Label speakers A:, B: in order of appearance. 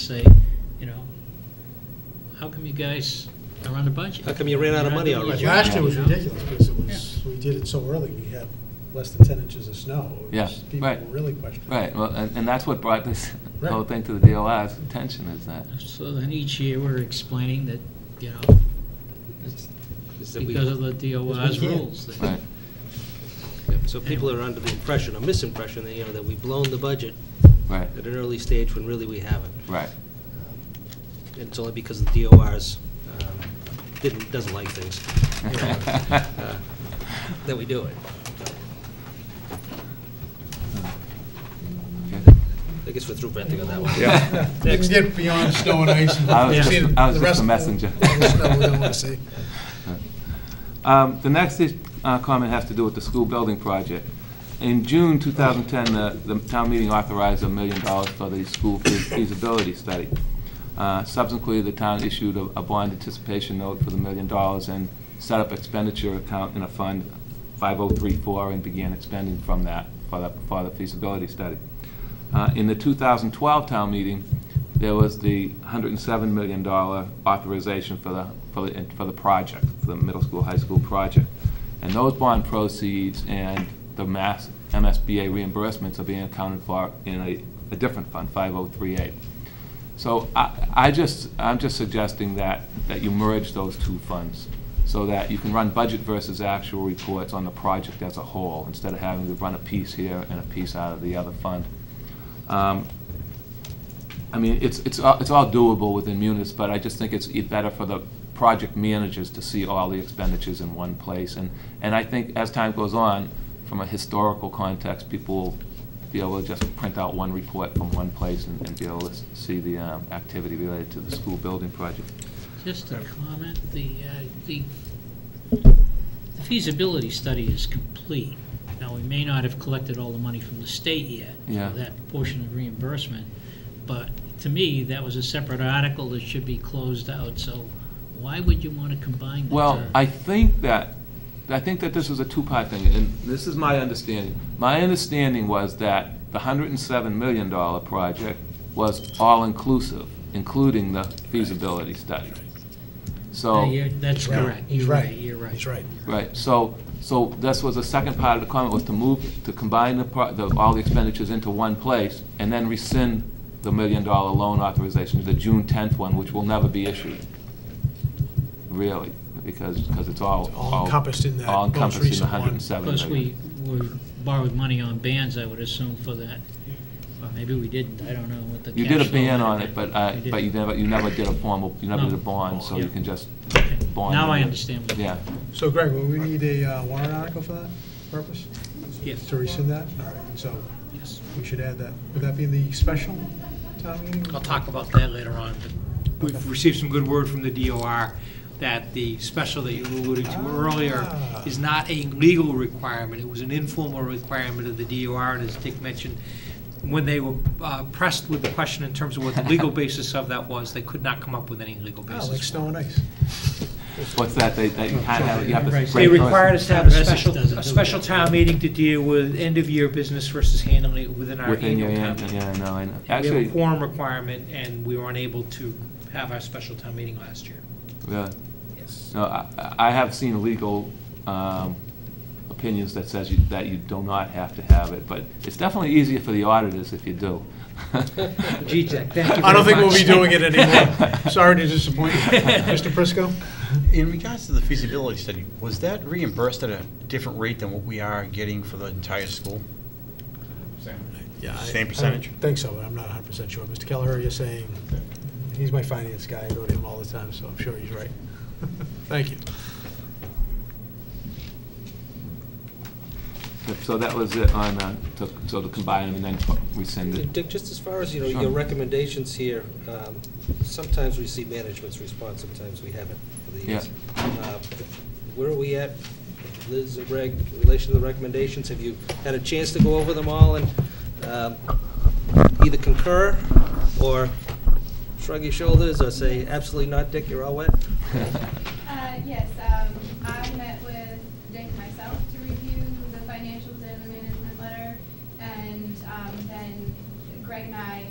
A: say, you know, how come you guys are on the budget?
B: How come you ran out of money
A: You're not doing
B: already?
A: your
C: Last year
A: job,
C: was
A: you know?
C: ridiculous because it was, we did it so early, we had less than 10 inches of snow. It was-
D: Yeah,
C: People were
D: right.
C: really questioning.
D: Right, well, and, and that's what brought this
C: Right.
D: whole thing to the DOR's attention, is that,
A: So then each year, we're explaining that, you know, it's
B: Is that we-
A: because of the DOR's
C: we can.
A: rules. that-
D: right,
B: yeah, So people are under the impression, or misimpression, that, you know, that we've blown the budget
D: right,
B: at an early stage when really we haven't.
D: right,
B: Um, It's only because the DORs um, didn't, doesn't like things, you know, uh, that we do it.
D: okay.
B: I guess we're through venting on that one.
D: Yeah.
C: We can get beyond snow and ice. and
D: I was
C: see
D: just-
C: the-
D: I was
C: the
D: just
C: rest
D: a
C: of the-
D: messenger.
C: the snow we don't wanna see.
D: Um, The next is- uh, comment has to do with the school building project. In June 2010, the- the town meeting authorized a million dollars for the school fe- feasibility study. Uh, Subsequently, the town issued a a bond anticipation note for the million dollars and set up expenditure account in a fund 5034 and began expending from that for the- for the feasibility study. Uh, In the 2012 town meeting, there was the $107 million authorization for the, for the, for the project, for the middle school, high school project. And those bond proceeds and the mass MSBA reimbursements are being accounted for in a, a different fund, 5038. So I, I just, I'm just suggesting that, that you merge those two funds so that you can run budget versus actual reports on the project as a whole, instead of having to run a piece here and a piece out of the other fund. Um, I mean, it's, it's, all- it's all doable within munis, but I just think it's e- better for the project managers to see all the expenditures in one place. And, and I think as time goes on, from a historical context, people will be able to just print out one report from one place and, and be able to s- see the, um, activity related to the school building project.
A: Just a comment, the, uh, the the feasibility study is complete. Now, we may not have collected all the money from the state yet
D: Yeah.
A: for that portion of reimbursement, but to me, that was a separate article that should be closed out, so why would you want to combine the
D: Well,
A: two?
D: I think that, I think that this was a two-part thing, and this is my understanding. My understanding was that the hundred and seven million dollar project was all-inclusive, including the feasibility study.
A: No,
D: So,
A: you're- That's
C: Right.
A: correct,
C: He's
A: you're right, you're right.
C: He's right.
D: right, so, so this was the second part of the comment, was to move, to combine the, pro- the, all the expenditures into one place, and then rescind the million-dollar loan authorization, the June tenth one, which will never be issued, really, because, because it's all.
C: All encompassed in that
D: all
C: most
D: encompassed in the
C: recent one.
D: 107
A: Plus, we,
D: million.
A: we borrowed money on bands, I would assume, for that. Or maybe we didn't, I don't know what the
D: You did
A: cash
D: a
A: flow
D: ban on
A: might have
D: it, but,
A: been.
D: uh,
A: We did.
D: but you never, you never did a formal, you never
A: No.
D: did a bond, so you
A: Yeah.
D: can just
A: Okay.
D: bond.
A: Now I
D: it.
A: understand what you-
D: Yeah.
C: So Greg, will we need a uh, warrant article for that purpose?
A: Yes.
C: To rescind that? All right, so
A: Yes.
C: we should add that. Would that be in the special town meeting?
E: I'll talk about that later on, but we've received some good word from the DOR that the special that you alluded to earlier
C: Ah.
E: is not a legal requirement, it was an informal requirement of the DOR, and as Dick mentioned, when they were uh, pressed with the question in terms of what the legal basis of that was, they could not come up with any legal
C: Ah, like
E: basis.
C: snow and ice.
D: What's that, they, they you can't have, you have to.
A: Right.
D: break
E: They
A: Great
E: required us to have a
A: Progressive
E: special,
A: doesn't
E: a
A: do
E: special
A: that.
E: town meeting to deal with end-of-year business versus handling it within our
D: Within your,
E: annual town
D: yeah,
E: meeting.
D: yeah, no, I know.
E: We have a
D: Actually,
E: quorum requirement, and we were unable to have our special town meeting last year.
D: really.
E: Yes.
D: No, I, I have seen legal, um, opinions that says you, that you do not have to have it, but it's definitely easier for the auditors if you do.
E: Gee, Jack, thank you
C: I don't
E: very
C: think we'll be
E: much.
C: doing it anymore. Sorry to disappoint you. Mr. Prisco?
F: In regards to the feasibility study, was that reimbursed at a different rate than what we are getting for the entire school?
C: Yeah, I-
F: Same
C: I
F: percentage?
C: don't think so, but I'm not 100% sure. Mr. Kelleher, you're saying, he's my finance guy, I go to him all the time, so I'm sure he's right. Thank you.
D: So that was it on, uh, to, so to combine them and then rescind it.
B: Dick, just as far as, you know,
D: Sure.
B: your recommendations here, um, sometimes we see management's response, sometimes we haven't for the years. Uh, Where are we at, Liz, and Greg, in relation to the recommendations? Have you had a chance to go over them all and um, either concur or shrug your shoulders or say, absolutely not, Dick, you're all wet?
G: Uh, Yes, um, I met with Dick myself to review the financials and the management letter, and um, then Greg and I